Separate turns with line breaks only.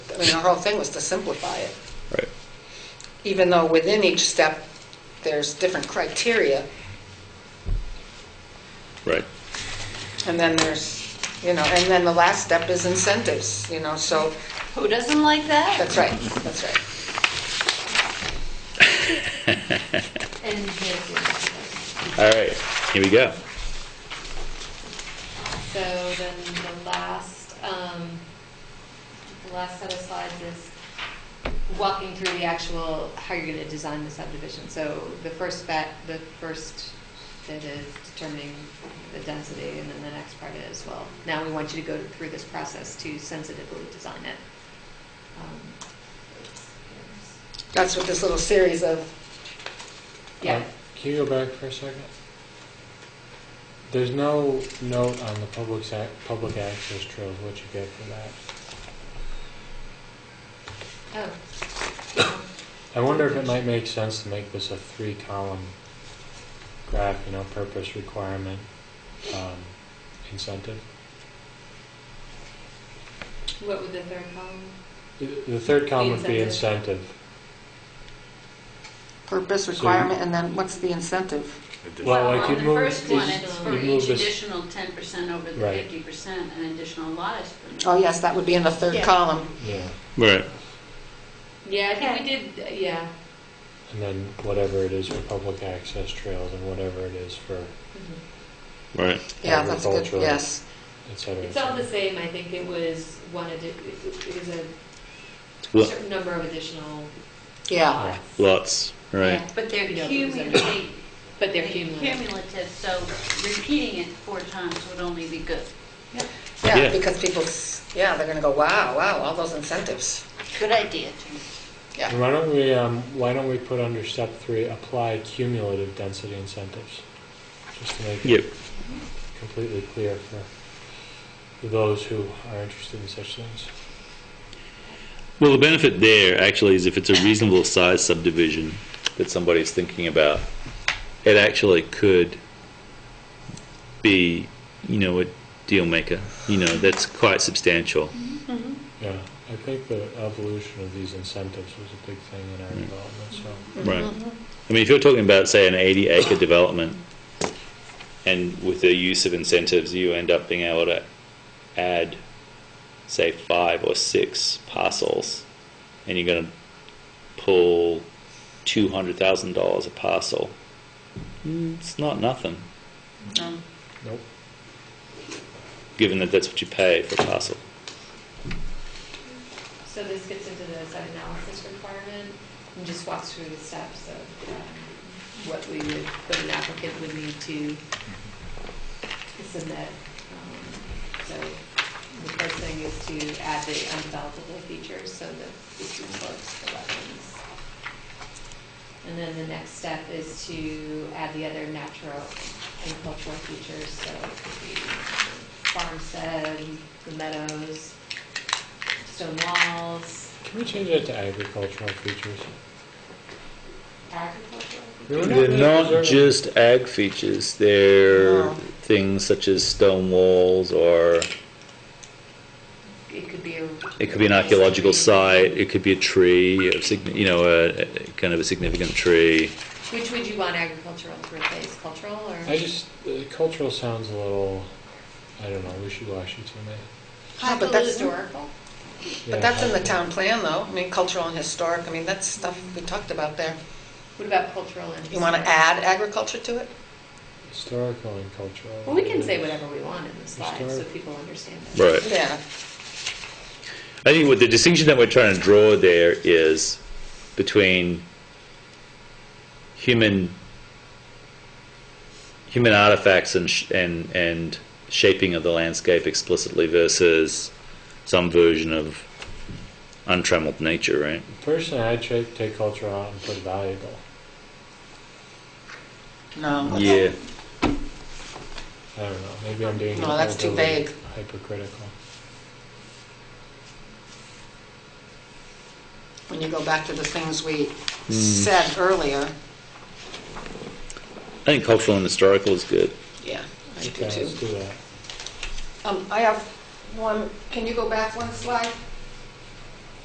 I mean, our whole thing was to simplify it,
Right.
even though within each step, there's different criteria,
Right.
and then there's, you know, and then the last step is incentives, you know, so,
Who doesn't like that?
that's right, that's right.
And here's
All right. Here we go.
the- so then the last, um, the last set of slides is walking through the actual, how you're gonna design the subdivision. So the first bet, the first bit is determining the density, and then the next part is, well, now we want you to go through this process to sensitively design it. Um,
That's what this little series of,
Yeah,
Uh, Can you go back for a second? There's no note on the public sac, public access trails, what you get for that.
oh.
I wonder if it might make sense to make this a three-column graph, you know, purpose, requirement, um, incentive.
What would the third column?
The the third column would be
incentive.
incentive.
purpose, requirement, and then what's the incentive?
Well,
Well,
like
on
you'd
the
move
first one,
this-
it's for
you'd move
each
this-
additional ten percent over the
Right.
fifty percent, an additional lot is permitted.
Oh, yes, that would be in the third
Yeah.
column.
Yeah.
Right.
Yeah, I think we did, uh, yeah.
And then whatever it is for public access trails and whatever it is for
Mhm.
Right.
Yeah, that's good,
Agricultural.
yes.
et cetera. et
It's all the
cetera.
same, I think it was one, addi- it it was a
Lo-
certain number of additional
Yeah,
lots.
Lots. Right.
Yeah.
But they're
You know, those
cumulative.
But they're cumulative.
Cumulative, so repeating it four times would only be good.
yeah,
Yeah.
because people, s- yeah, they're going to go, wow, wow, all those incentives.
Good idea, Jim.
Yeah.
Why don't we, um, why don't we put under step three, apply cumulative density incentives? Just to make
Yep.
it completely clear for those who are interested in such things.
Well, the benefit there actually is if it's a reasonable size subdivision that somebody's thinking about, it actually could be, you know, a deal maker. You know, that's quite substantial.
Yeah, I think the evolution of these incentives was a big thing in our
Mm.
development, so.
Right. Mm-hmm. I mean, if you're talking about, say, an 80 acre development, and with the use of incentives, you end up being able to add, say, five or six parcels, and you're going to pull $200,000 a parcel. Mm, It's not nothing,
Nope.
given that that's what you pay for a parcel.
So this gets into the site analysis requirement, and just walks through the steps of um, what we would, what an applicant would need to submit. Um, So the first thing is to add the undevelopable features, so the eastern slopes, the wetlands. And then the next step is to add the other natural and cultural features, so it could be farmstead, the meadows, stone walls,
Can we change that to agricultural features?
agricultural.
They're not just ag features, they're
No.
things such as stone walls or
It could be a.
It could be an archaeological site, it could be a tree, of signi- you know, a, a- kind of a significant tree.
Which would you want agricultural to replace, cultural or?
I just, uh, cultural sounds a little, I don't know, wishy-washy to me.
Yeah, Ah, but that's-
Historical?
eh? Yeah,
But that's in the
I-
town plan, though. I mean, cultural and historic, I mean, that's stuff we talked about there.
What about cultural and?
You want to add
historical?
agriculture to it?
Historical and cultural.
Well, we can say whatever we want in the slide, so
Historic.
people understand that.
Right.
Yeah,
I think what the distinction that we're trying to draw there is between human human artifacts and sh- and and shaping of the landscape explicitly versus some version of untrammeled nature, right?
Personally, I'd cha- take culture out and put valuable.
no.
Yeah.
I don't know, maybe I'm being.
No, that's too
overly
vague.
Hypercritical.
When you go back to the things we said earlier,
I think cultural and historical is good.
yeah, I do
Okay,
too.
let's do that.
Um, I have one, can you go back one slide?